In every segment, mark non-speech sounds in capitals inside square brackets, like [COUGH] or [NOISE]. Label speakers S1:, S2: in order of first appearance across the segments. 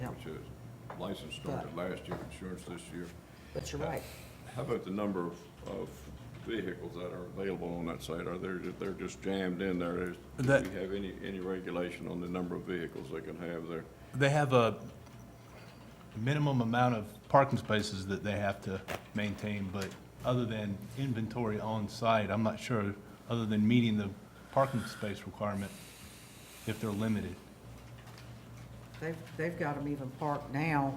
S1: church. License started last year, insurance this year.
S2: But
S3: Uh,
S2: you're right.
S1: How about the number of, of vehicles that are available on that site? Are they, they're just jammed in there? There's-
S3: That-
S1: Do we have any, any regulation on the number of vehicles they can have there?
S3: They have a minimum amount of parking spaces that they have to maintain, but other than inventory on site, I'm not sure, other than meeting the parking space requirement, if they're limited.
S2: They've, they've got them even parked now.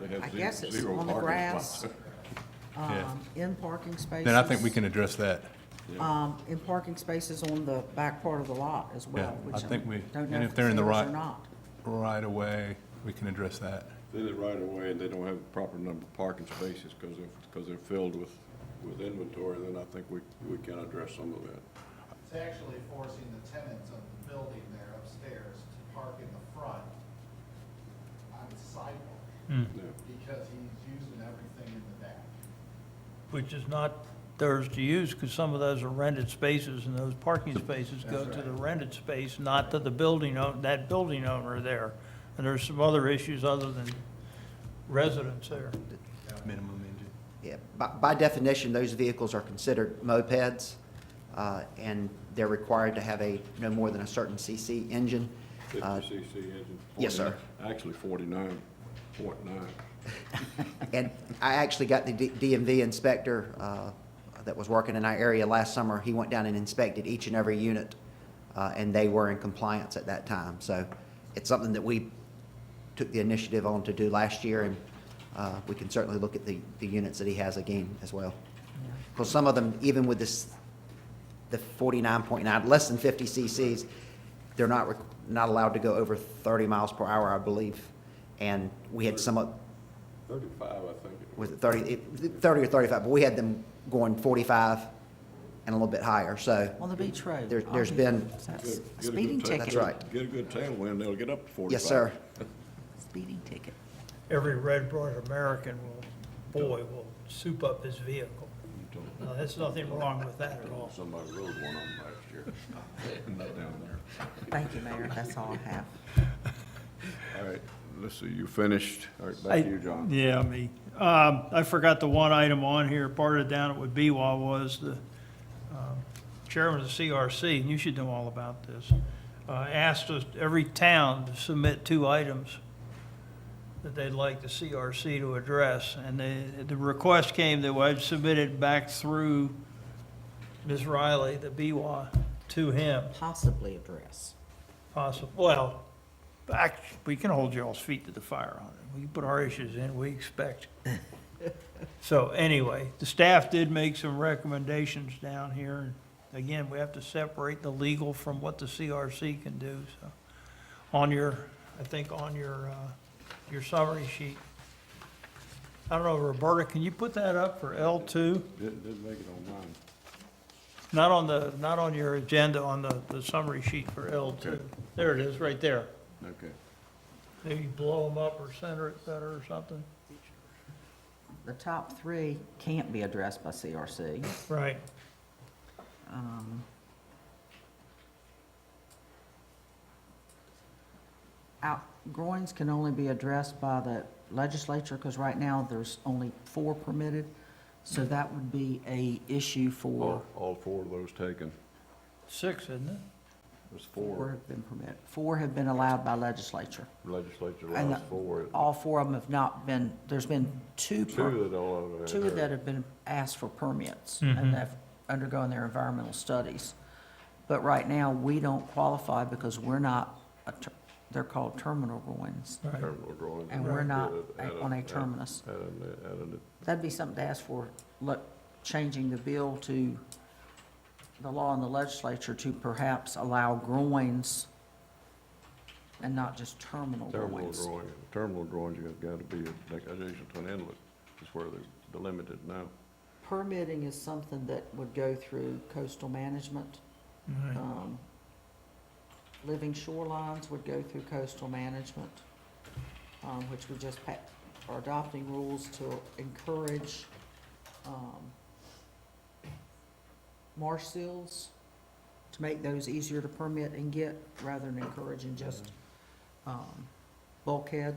S1: They have
S2: I
S1: ze-
S2: guess it's
S1: zero
S2: on the
S1: parking
S2: grass,
S1: spots. [LAUGHS]
S3: Yeah.
S2: um, in parking spaces.
S3: Then I think we can address that.
S2: Um, in parking spaces on the back part of the lot as well,
S3: Yeah,
S2: which
S3: I
S2: I
S3: think we-
S2: don't know
S3: and
S2: if
S3: if
S2: it's
S3: they're in the
S2: theirs
S3: right-
S2: or not.
S3: Right away, we can address that.
S1: They did it right away, and they don't have the proper number of parking spaces, because they're, because they're filled with, with inventory, then I think we, we can address some of that.
S4: It's actually forcing the tenants of the building there upstairs to park in the front on the sidewalk
S1: Yeah.
S4: because he's using everything in the back.
S5: which is not theirs to use, because some of those are rented spaces, and those parking spaces go to the rented space, not to the building, own- that building owner there. And there's some other issues other than residents there.
S3: Minimum engine.
S6: Yeah, by, by definition, those vehicles are considered mopeds, uh, and they're required to have a, no more than a certain CC engine. uh,
S1: Fifty cc engine.
S6: yes, sir.
S1: 49 Actually forty-nine point nine.
S6: And I actually got the D- DMV inspector uh, that was working in our area last summer, he went down and inspected each and every unit, uh, and they were in compliance at that time. So it's something that we took the initiative on to do last year, and uh, we can certainly look at the, the units that he has again as well. Because some of them, even with this, the 49.9, less than 50 CCs, they're not, re- not allowed to go over 30 miles per hour, I believe. And we had some, of-
S1: Thirty-five, I think it was.
S6: was it 30, it- 30 or 35, but we had them going 45 and a little bit higher,
S2: On
S6: so,
S2: the beach road.
S6: There- there's
S2: on-
S6: been-
S2: That's
S1: Get-
S2: a
S1: get a good
S2: Speeding
S1: take.
S2: ticket.
S6: That's right.
S1: Get a good tailwind, they'll get up to forty-five.
S6: yes, sir.
S2: Speeding ticket.
S5: Every red-blooded American will, boy, will soup up his vehicle. Now, there's nothing wrong with that at all.
S1: Somebody rode one of them last year. [LAUGHS] Not down there.
S2: Thank you, Mayor, that's all I have.
S1: All right, let's see, you finished. All right, back to you, John.
S5: Yeah, me. Um, I forgot the one item on here, part of down at with BWA was the um, chairman of the CRC, and you should know all about this, uh, asked us, every town to submit two items that they'd like the CRC to address. And the, the request came that I'd submit it back through Ms. Riley, the BWA, to him
S2: Possibly address.
S5: possible, well, back, we can hold y'all's feet to the fire on it. We put our issues in, we expect. So anyway, the staff did make some recommendations down here. Again, we have to separate the legal from what the CRC can do, so. On your, I think on your, uh, your summary sheet. I don't know, Roberta, can you put that up for L two?
S1: Didn't, didn't make it on mine.
S5: Not on the, not on your agenda, on the, the summary sheet for L two.
S1: Okay.
S5: There it is, right there.
S1: Okay.
S5: Maybe blow them up or center it better or something?
S2: The top three can't be addressed by CRC.
S5: Right.
S2: Um, Outgrowings can only be addressed by the legislature, because right now, there's only four permitted. So that would be a issue for,
S1: All, all four of those taken.
S5: Six, isn't it?
S1: There's
S2: four
S1: four,
S2: have been permitted, four have been allowed by legislature.
S1: legislature
S2: And
S1: allows
S2: the-
S1: four.
S2: All four of them have not been, there's been two, per-
S1: Two that all of them.
S2: two that have been asked for permits, and have undergone their environmental studies. But right now, we don't qualify because we're not, a ter- they're called terminal ruins,
S5: Right.
S1: Terminal drawings.
S2: and we're not
S1: At
S2: a- on a terminus.
S1: At an, at an
S2: That'd be something to ask for, look, changing the bill to the law in the legislature to perhaps allow groins and not just terminal
S1: Terminal
S2: ruins.
S1: drawing, terminal drawings, you have got to be like adjacent to an inlet, is where they're delimited now.
S2: Permitting is something that would go through coastal management. Um, Living shorelines would go through coastal management, um, which we just pa- are adopting rules to encourage, um, marsh seals, to make those easier to permit and get, rather than encouraging just, um, bulkheads.